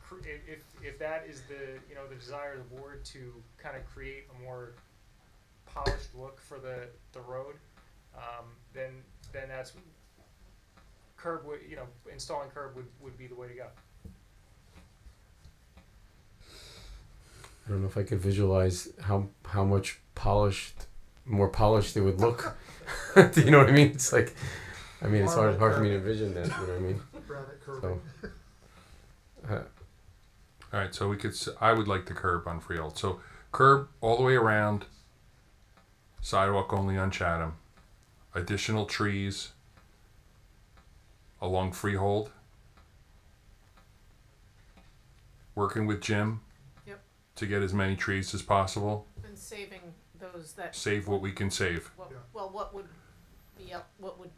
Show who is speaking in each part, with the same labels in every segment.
Speaker 1: pr- if, if, if that is the, you know, the desire of the board to kind of create a more polished look for the, the road, um, then, then that's, curb would, you know, installing curb would, would be the way to go.
Speaker 2: I don't know if I could visualize how how much polished, more polished they would look. Do you know what I mean? It's like, I mean, it's hard hard for me to envision that. You know what I mean?
Speaker 3: Granite
Speaker 2: So,
Speaker 3: curbing.
Speaker 2: uh,
Speaker 4: All right, so we could. s- I would like the curb on Freehold. So curb all the way around. Sidewalk only on Chatham. Additional trees along Freehold. Working with Jim.
Speaker 5: Yep.
Speaker 4: To get as many trees as possible.
Speaker 5: And saving those that,
Speaker 4: Save what we can save.
Speaker 5: well,
Speaker 3: Yeah.
Speaker 5: well, what would be, up- what would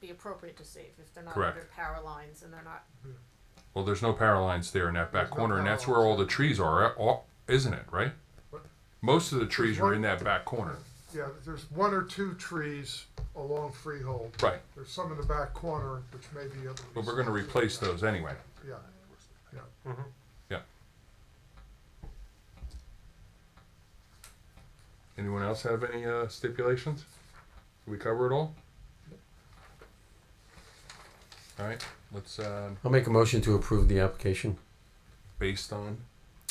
Speaker 5: be appropriate to save if they're not
Speaker 4: Correct.
Speaker 5: under power lines and they're not,
Speaker 4: Well, there's no power lines there in that back
Speaker 3: There's no
Speaker 4: corner, and
Speaker 3: power
Speaker 4: that's where
Speaker 3: lines.
Speaker 4: all the trees are, eh, all- isn't it? Right.
Speaker 3: What?
Speaker 4: Most of the trees are
Speaker 3: one-
Speaker 4: in that back corner.
Speaker 3: Yeah, there's one or two trees along Freehold.
Speaker 4: Right.
Speaker 3: There's some in the back corner, which may be. able to be
Speaker 4: But we're going to replace those anyway.
Speaker 3: Yeah, yeah.
Speaker 4: Anyone else have any uh, stipulations? Did we cover it all? All right, let's, uh,
Speaker 2: I'll make a motion to approve the application
Speaker 4: based on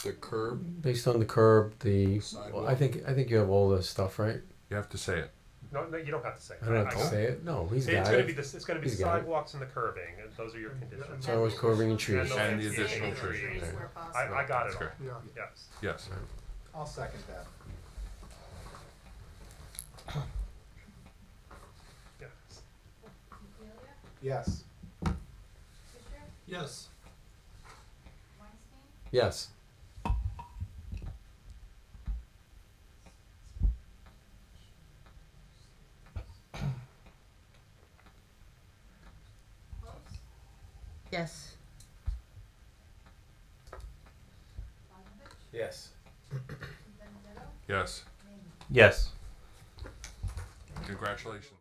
Speaker 4: the curb,
Speaker 2: based on the curb. The well, I
Speaker 4: Sidewalk.
Speaker 2: think I think you have all the stuff right.
Speaker 4: you have to say it.
Speaker 6: No, no, you don't have to say.
Speaker 2: I don't have
Speaker 6: I-
Speaker 2: to
Speaker 6: I-
Speaker 2: say it. No, he's
Speaker 6: It's
Speaker 2: got
Speaker 6: gonna be
Speaker 2: it.
Speaker 6: this, it's gonna be
Speaker 2: He's got it.
Speaker 6: sidewalks and the curving, and those are your
Speaker 3: And-
Speaker 6: conditions.
Speaker 2: So it's curbing and trees.
Speaker 6: And
Speaker 4: the additional
Speaker 5: trees.
Speaker 6: trees.
Speaker 5: where
Speaker 6: I,
Speaker 5: possible.
Speaker 6: I got it
Speaker 4: That's
Speaker 6: all,
Speaker 4: correct.
Speaker 3: Yeah,
Speaker 6: yes.
Speaker 4: Yes.
Speaker 7: I'll second that.
Speaker 6: Yeah.
Speaker 7: Yes.
Speaker 3: Yes.
Speaker 2: Yes.
Speaker 8: Yes.
Speaker 7: Yes.
Speaker 4: Yes.
Speaker 8: Yes.
Speaker 4: Congratulations.